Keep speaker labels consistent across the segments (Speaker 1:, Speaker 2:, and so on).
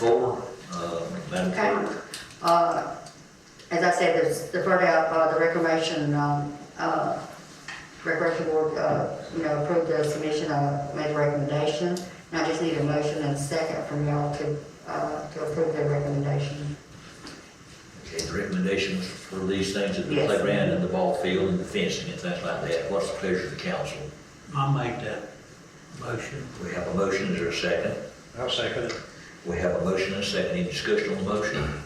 Speaker 1: four, uh, Madam
Speaker 2: Okay.
Speaker 1: Clerk.
Speaker 2: Uh, As I said, there's the vote out, uh, the reclamation, um, uh, Recreation Board, uh, you know, approved the submission, uh, made a recommendation. And I just need a motion and second from y'all to, uh, to approve the recommendation.
Speaker 1: Okay, the recommendations for these things at the
Speaker 2: Yes.
Speaker 1: playground and the ball field and the fencing and things like that. What's the pleasure of the council?
Speaker 3: I'll make that motion.
Speaker 1: We have a motion, is there a second?
Speaker 4: I'll second it.
Speaker 1: We have a motion and a second. Any discussion on the motion?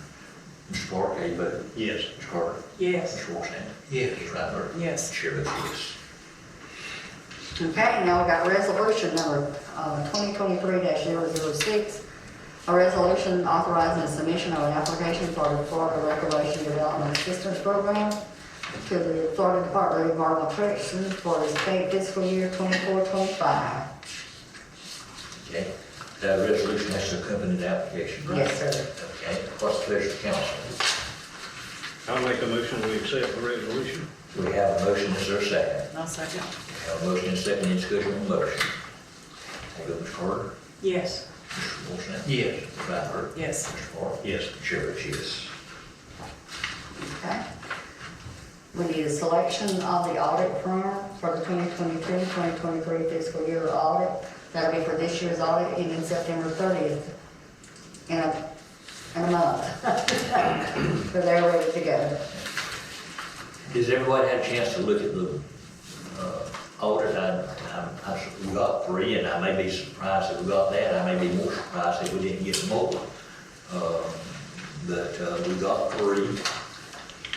Speaker 1: Mr. Park, how you vote?
Speaker 4: Yes.
Speaker 1: Mr. Carter?
Speaker 5: Yes,
Speaker 1: Mr. Washington?
Speaker 3: Yes.
Speaker 1: Mr. Rattler?
Speaker 5: Yes.
Speaker 1: Chair votes yes.
Speaker 2: Okay, now we got resolution number uh, twenty twenty-three 6 A resolution authorizing the submission of an application for the Florida Recreation Development Assistance Program to the Florida Department of Environmental Protection for the state fiscal year 24-25.
Speaker 1: Okay, that resolution has to accompany the application, right?
Speaker 2: Yes, sir.
Speaker 1: Okay, what's the pleasure of the council?
Speaker 4: I'll make a motion, we accept the resolution.
Speaker 1: We have a motion, is there a second?
Speaker 5: I'll second.
Speaker 1: We have a motion and a second. Any discussion on the motion? How you vote, Mr. Carter?
Speaker 5: Yes.
Speaker 1: Mr. Washington?
Speaker 3: Yes.
Speaker 1: Mr. Rattler?
Speaker 5: Yes.
Speaker 1: Mr. Park?
Speaker 4: Yes.
Speaker 1: Chair votes yes.
Speaker 2: Okay. We need a selection of the audit firm for the 2022-2023 fiscal year audit. That'll be for this year's audit ending September 30th in a, in a month. So they're ready to go.
Speaker 1: Has everybody had a chance to look at the uh, audit? I, I- I, s- we got three, and I may be surprised that we got that. I may be more surprised that we didn't get more. Uh, But uh, we got three.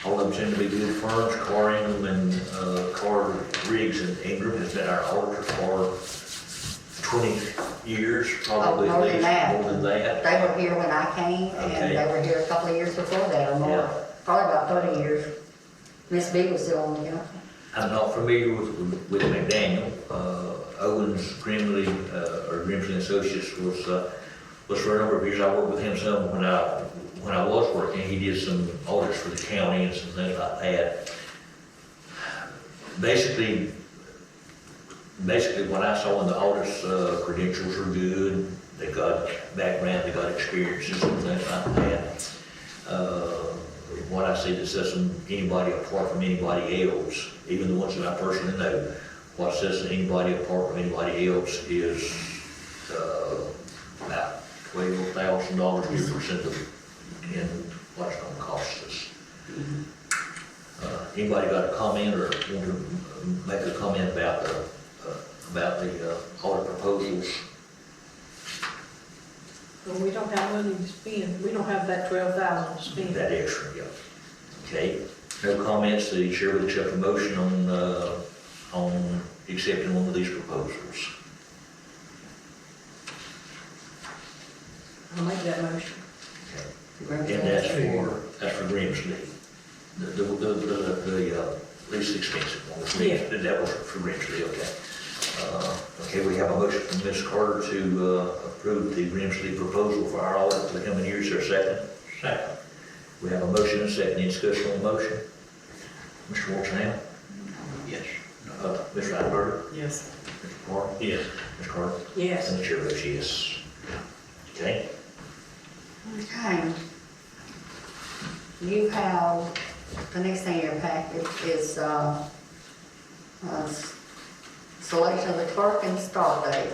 Speaker 1: All of them seem to be good firms. Carr Ingram and uh, Carr Riggs and Ingram has been our auditor for 20 years, probably
Speaker 2: Oh, more
Speaker 1: at
Speaker 2: than
Speaker 1: least,
Speaker 2: that.
Speaker 1: more than that.
Speaker 2: They were here when I came, and they
Speaker 1: Okay.
Speaker 2: were here a couple of years before that,
Speaker 1: Yeah.
Speaker 2: or more, probably about 30 years. Miss B was still on the council.
Speaker 1: I'm not familiar with, with McDaniel. Uh, Owens Grimley, uh, or Grimsley and Associates was, uh, was for a number of years. I worked with him some when I, when I was working. He did some audits for the county and some things like that. Basically, basically what I saw in the audits, uh, credentials are good. They got background, they got experiences and things like that. Uh, What I see that says from anybody apart from anybody else, even the ones that I personally know, what says anybody apart from anybody else is, uh, about twelve thousand dollars difference in the, in what it's gonna cost us. Uh, Anybody got a comment or want to make a comment about the, uh, about the uh, audit proposals?
Speaker 5: But we don't have money to spend, we don't have that twelve thousand to spend.
Speaker 1: That extra, yeah. Okay, no comments, the chair will accept a motion on, uh, on accepting one of these proposals.
Speaker 5: I'll make that motion.
Speaker 1: And that's for, that's for Grimsley. The, the, the, the, the, uh, least expensive one, was Grims-
Speaker 5: Yeah.
Speaker 1: that was for Grimsley, okay. Uh, okay, we have a motion from Ms. Carter to, uh, approve the Grimsley proposal for our audit for the coming years, or second? Second. We have a motion and a second, any discussion on the motion? Mr. Wolfson,
Speaker 3: Yes.
Speaker 1: uh, Ms. Rattler,
Speaker 5: Yes.
Speaker 1: Mr. Moore,
Speaker 4: Yes.
Speaker 1: Ms. Carter,
Speaker 5: Yes.
Speaker 1: and the chair votes yes. Okay?
Speaker 2: Okay. You have, the next thing in your packet is, uh, uh, s- selection of the clerk and start date.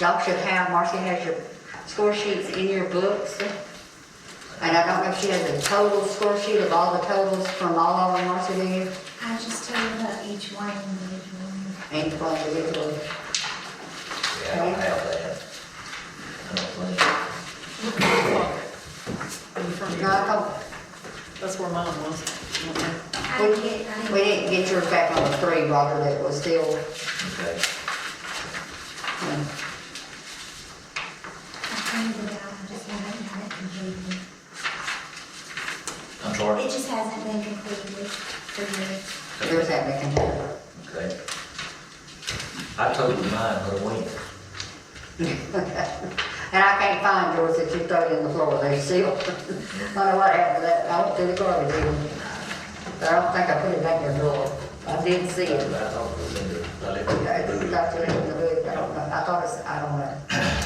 Speaker 2: Y'all should have, Marcy has your score sheets in your books. And I don't know if she has a total score sheet of all the totals from all of them, Marcy, do you?
Speaker 6: I just tell you about each one individually.
Speaker 2: And from individually.
Speaker 1: Yeah, I don't have that. I don't think.
Speaker 5: Look at the pocket. In the front of
Speaker 2: No, I
Speaker 5: your-
Speaker 2: come,
Speaker 5: That's where mine was.
Speaker 6: I
Speaker 2: We
Speaker 6: didn't get, I
Speaker 2: Oh, we
Speaker 6: didn't.
Speaker 2: didn't get yours back on the three, Roger, that was still,
Speaker 1: Okay,
Speaker 2: um,
Speaker 6: I printed it out, I just haven't had it completed.
Speaker 1: I'm sorry.
Speaker 6: It just hasn't been completed for me.
Speaker 2: yours had been completed.
Speaker 1: Okay. I told you mine, but I went.
Speaker 2: And I can't find yours that you threw in the floor, they sealed. Wonder what happened to that, I went through the garbage even. But I don't think I put it back in the drawer, I didn't see
Speaker 1: I
Speaker 2: it.
Speaker 1: thought it was in the, I left it in the
Speaker 2: It's
Speaker 1: boot.
Speaker 2: got to be in the boot, I don't know, I thought it's, I don't know.